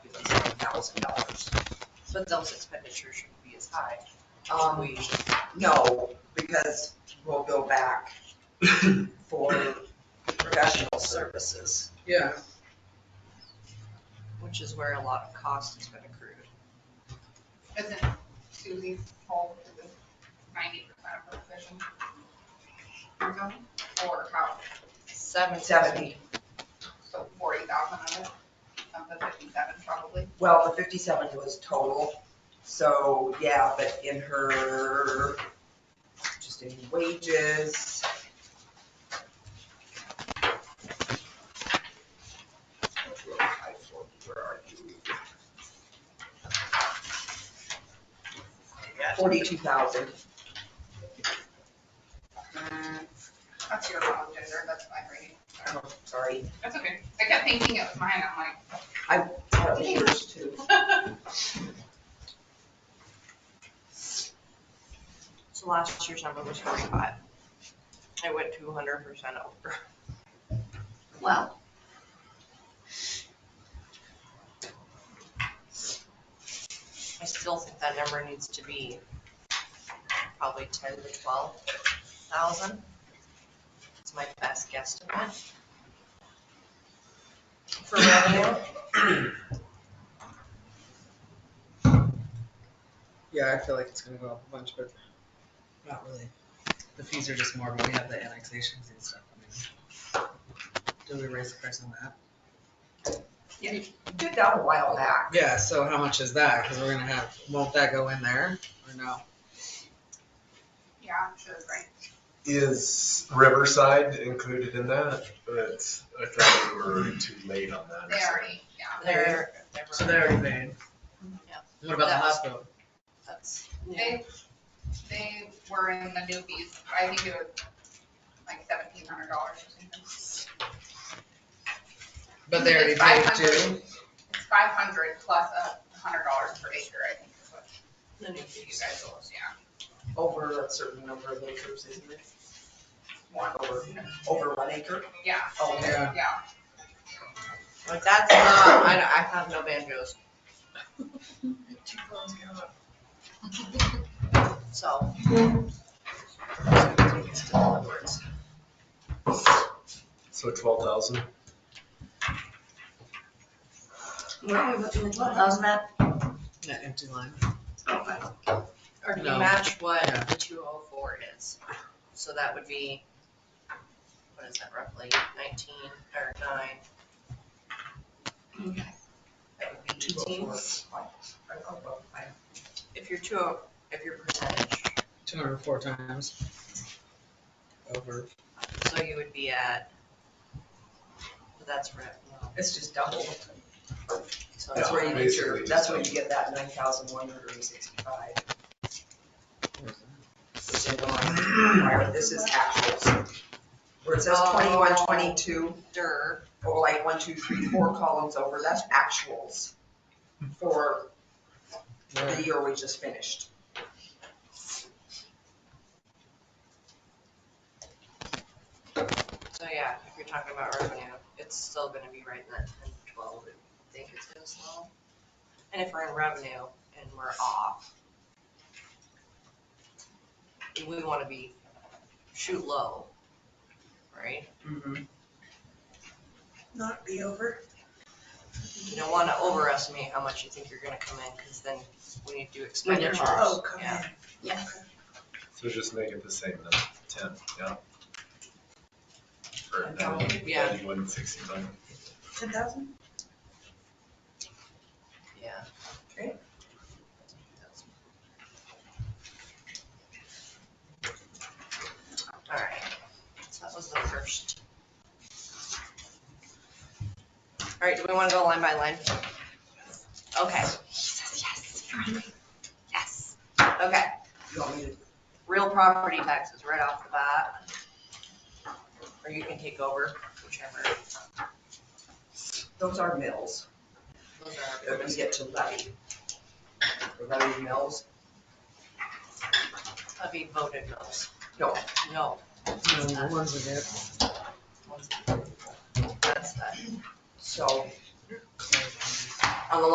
thousand dollars. But those expenditures shouldn't be as high. Um, We, No, because we'll go back for professional services. Yeah, which is where a lot of cost has been accrued. Isn't Susie's home to the ninety percent of her position? Or how, Seven Seventy, so forty thousand of it, of the fifty-seven probably. well, the fifty-seven was total, so yeah, but in her, just in wages. Forty-two thousand, That's your wrong gender, that's my reading. oh, sorry, That's okay. I kept thinking it was mine, I'm like. I was yours too. So last year's number was forty-five. I went two hundred percent over. Well. I still think that number needs to be probably ten to twelve thousand. It's my best guesstimate. For revenue. yeah, I feel like it's gonna go up a bunch, but not really. The fees are just more when we have the annexations and stuff. I mean, Do we raise the price on that? Did that a while back. Yeah, so how much is that? Cause we're gonna have, won't that go in there or no? Yeah, I'm sure, right? Is Riverside included in that? But I thought we were too late on that. They already, yeah. They're, So they're already paying. Yeah. What about the That was- hospital? that's, They, they were in the newbies, I think it was like seventeen hundred dollars or something. But they already It's paid 500. too. It's five hundred plus a hundred dollars per acre, I think is what the new you fees. guys owe us, yeah. over a certain number of acres, isn't it? One. Over, over one acre? Yeah, Oh, Yeah. yeah. Like, that's not, I, don't- I have no banjos. So. So twelve thousand? What are we looking at, twelve thousand at? That empty line. Or can you No. match what Yeah. the two oh four is? So that would be, what is that roughly, nineteen or nine? That would be eighteen, if you're two oh, if your percentage, Two hundred and four times. Over. so you would be at, that's right, no, It's just double. so That's it's Yeah, where you get your, basically that's just where you double. get that nine thousand one hundred and sixty-five. This is actuals. Where it says Oh. twenty-one, twenty-two, dirt, or like one, two, three, four columns over, that's actuals for the year we just finished. so yeah, if you're talking about revenue, it's still gonna be right in that ten to twelve, I think it's gonna slow. And if we're in revenue and we're off, we wanna be, shoot low, right? Not be over. You don't want to overestimate how much you think you're gonna come in, because then we need to do expenditures. Oh, come Yeah. on. Yes. So just make it the same then, ten, yeah? um, For Ten thousand. Yeah. ninety-one sixty-nine. Ten thousand? Yeah. Okay. All right, so that was the first. All right, do we want to go line by line? Okay. Yes, Yes. Okay, You want me to real property taxes right off the bat. Or you can take over, whichever. Those are mills Those are our that we get to levy. The levy mills, That'd be voted mills. No. No. No, the ones we get. That's that. so